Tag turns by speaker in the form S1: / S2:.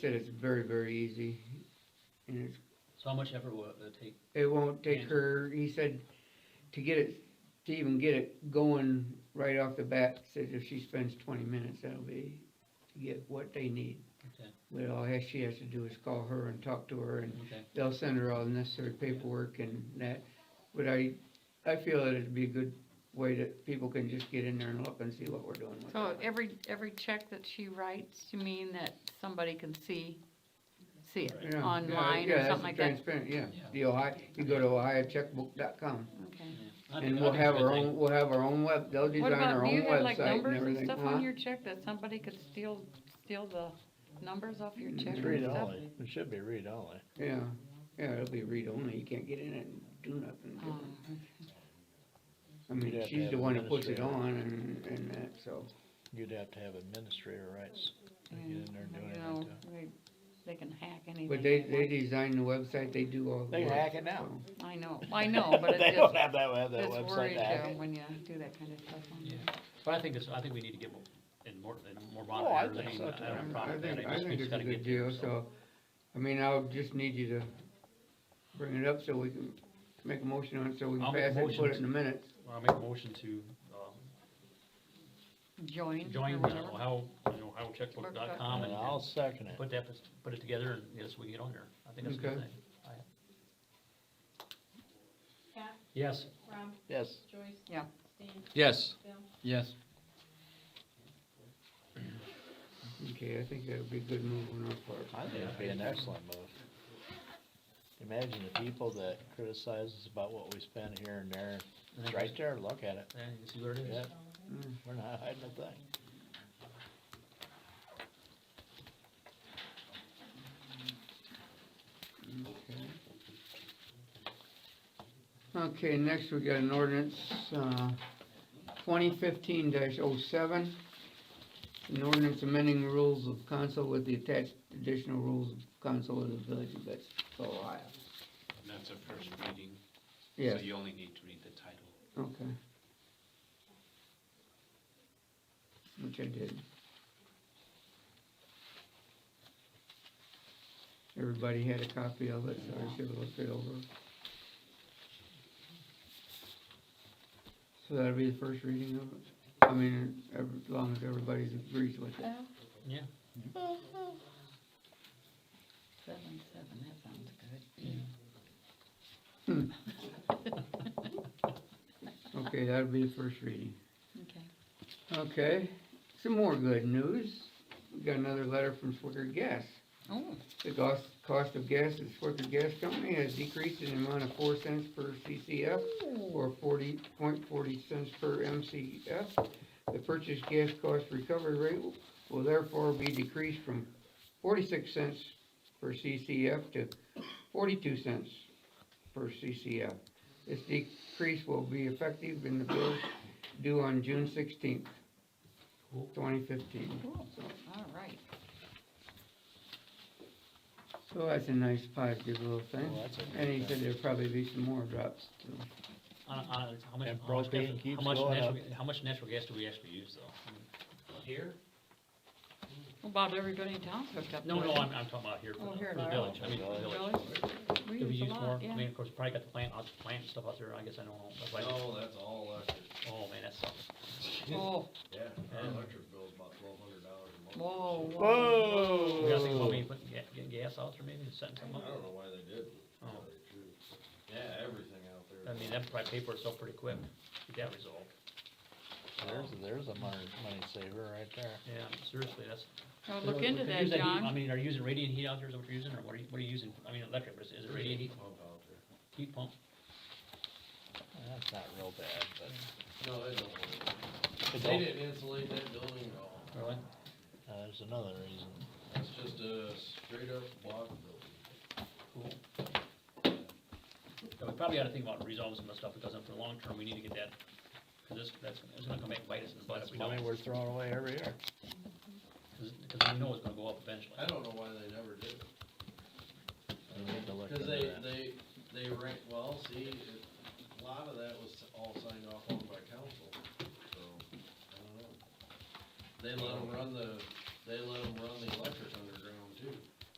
S1: said it's very, very easy. And it's,
S2: So how much effort will it take?
S1: it won't take
S2: And-
S1: her, he said, to get it, to even get it going right off the bat, says if she spends twenty minutes, that'll be to get what they need.
S2: Okay.
S1: But all has- she has to do is call her and talk to her and
S2: Okay,
S1: they'll send her all the necessary paperwork and that. But I, I feel that it'd be a good way that people can just get in there and look and see what we're doing with
S3: So
S1: it.
S3: every, every check that she writes, you mean that somebody can see, see
S2: Right.
S1: You
S3: it
S1: know,
S3: online
S1: yeah,
S3: or
S1: that's
S3: something like that?
S1: Transparent, yeah.
S2: Yeah.
S1: The Ohio, you go to ohiocheckbook.com
S3: Okay.
S2: yeah. I think-
S1: and
S2: I
S1: we'll
S2: think it's
S1: have
S2: a good
S1: our
S2: thing.
S1: own, we'll have our own web, they'll
S3: What
S1: design
S3: about,
S1: our
S3: do you
S1: own
S3: have like
S1: website and
S3: numbers and
S1: everything, Uh-huh.
S3: stuff on
S1: huh?
S3: your check that somebody could steal, steal the numbers off your
S1: Mm,
S3: check
S1: it's
S3: and
S4: Read
S3: stuff?
S4: only, it should be read only.
S1: Yeah, yeah, it'll be read only, you can't get in it and do nothing
S3: Oh,
S2: Um,
S1: different. I
S4: You'd have
S1: mean,
S4: to
S1: she's
S4: have
S1: the one that puts it
S4: administrator.
S1: on and, and that, so.
S4: You'd have to have administrator rights to
S3: yeah,
S4: get in there and do
S3: you
S4: anything
S3: Mm, know,
S4: to it.
S3: they- They can hack anything.
S1: But they, they
S3: want.
S1: design the website, they do all the
S4: They
S1: work.
S4: hack it now.
S1: so.
S3: I know, I know, but
S4: They
S3: it
S4: don't
S3: just,
S4: have that, have that
S3: it's
S4: website
S3: worries
S4: to hack
S3: you
S4: it.
S3: when you do that kind of stuff on
S2: Yeah,
S3: there.
S2: but I think this, I think we need to get more, and more, and more
S4: Oh, I
S2: monitoring.
S4: think
S2: mean,
S4: so,
S2: I
S4: too.
S2: don't have a
S1: I
S2: problem with that.
S1: think, I
S2: just- we
S1: think
S2: just
S1: it's a
S2: gotta
S1: good
S2: get
S1: deal,
S2: there,
S1: so, I mean, I'll just need you to bring it up so we can make a motion on it, so we
S2: I'll
S1: can
S2: make a
S1: pass it, and put
S2: motion
S1: it in the minutes.
S2: I'll make a motion to, um,
S3: Join or
S2: join with
S3: whatever.
S2: Ohio, you know, ohiocheckbook.com
S4: And
S2: and
S4: I'll
S2: and
S4: second it.
S2: put that, put it together and, yes, we can get on there. I think that's a good
S1: Okay.
S2: thing.
S5: Pat,
S2: Yes.
S5: Rob,
S4: Yes,
S5: Joyce.
S3: Yeah.
S5: Stan,
S6: Yes.
S5: Bill.
S6: Yes.
S1: Okay, I think that would be a good move on our part.
S4: I think it'd be an excellent move. Imagine the people that criticize us about what we spend here and there,
S2: And
S4: it's
S2: then
S4: right
S2: just-
S4: there, look at it.
S2: Yeah, you see where it
S4: Yeah,
S2: is?
S1: Mm.
S4: we're not hiding a thing.
S1: Okay, next we got an ordinance, uh, twenty fifteen 7 An ordinance amending the rules of council with the attached additional rules of council of the village of Betsville, Ohio.
S7: And that's a first reading, so
S1: Yes,
S7: you only need to read the title.
S1: okay. Which I did. Everybody had a copy of it, so I should have looked it over. So that'll be the first reading of it, I mean, ev- as long as everybody agrees with
S3: Um,
S1: it.
S2: Yeah.
S3: Seven, seven, that sounds good. Mm-hmm.
S1: Okay, that'll be the first reading.
S3: Okay.
S1: Okay, some more good news, we got another letter from Swicker Gas.
S3: Oh,
S1: The cost, cost of gas at Swicker Gas Company has decreased in the amount of four cents per CCF or forty point forty cents per MCF. The purchase gas cost recovery rate will- will therefore be decreased from forty-six cents per CCF to forty-two cents per CCF. This decrease will be effective in the bill due on June sixteenth,
S2: Cool.
S1: twenty fifteen.
S3: cool, all right.
S1: So that's a nice positive little thing.
S4: Well, Oh, that's a good
S1: And he said
S4: thing.
S1: there'll probably be some more drops too.
S2: On, on, how much,
S4: And
S2: how much,
S4: propane
S2: natural- how
S4: keeps
S2: much
S4: going
S2: natural, how much natural gas do we actually use though? Here?
S3: About everybody in town's hooked up.
S2: No,
S3: to
S2: no,
S3: it.
S2: I'm, I'm talking about here for
S3: Oh,
S2: the,
S3: here
S2: for the
S3: in our-
S2: village, I mean, for the
S3: Really?
S2: village.
S3: We
S2: Do we
S3: use a
S2: more?
S3: lot,
S2: I
S3: yeah.
S2: mean, of course, probably got the plant, lots of plant and stuff out there, I guess I don't know, that's why,
S8: No, that's all electric,
S2: oh man, that sucks.
S3: Oh,
S8: yeah, our
S2: Yeah.
S8: electric bill's about twelve hundred dollars a month.
S3: whoa, whoa.
S2: We gotta think about
S4: Whoa!
S2: maybe putting ga- getting gas out there maybe, and setting
S8: I
S2: something up.
S8: don't know why they did, to tell
S2: Oh.
S8: you the truth. yeah, everything out there.
S2: I mean, that'd probably pay for itself pretty quick, get that resolved,
S4: There's, there's a money, money saver right there.
S2: yeah, seriously, that's.
S3: Now
S2: Could-
S3: look into
S2: could
S3: that,
S2: use heat- I
S3: John.
S2: mean, are you using radiant heat out there, is that what you're using, or what are you, what are you using, I mean, electric, but is- is it radiant heat,
S8: Pump out there.
S2: heat pump?
S4: That's not real bad, but
S8: No, they don't, want it.
S4: it
S8: they
S4: don't-
S8: didn't insulate that building at all,
S2: Really?
S4: uh, there's another reason.
S8: that's just a straight up block building.
S2: Cool. Yeah, we probably ought to think about resolving some of the stuff, because for the long term, we need to get that, cause this, that's, it's gonna come back and bite us in the butt if
S4: That's
S2: we don't,
S4: money we're throwing away every year.
S2: cause, 'cause we know it's gonna go up eventually.
S8: I don't know why they never did. it.
S4: We need to look
S8: Cause
S4: into
S8: they,
S4: that.
S8: they, they ran, well, see, it- a lot of that was all signed off on by council, so, I don't know. They let them run the, they let them run the electric under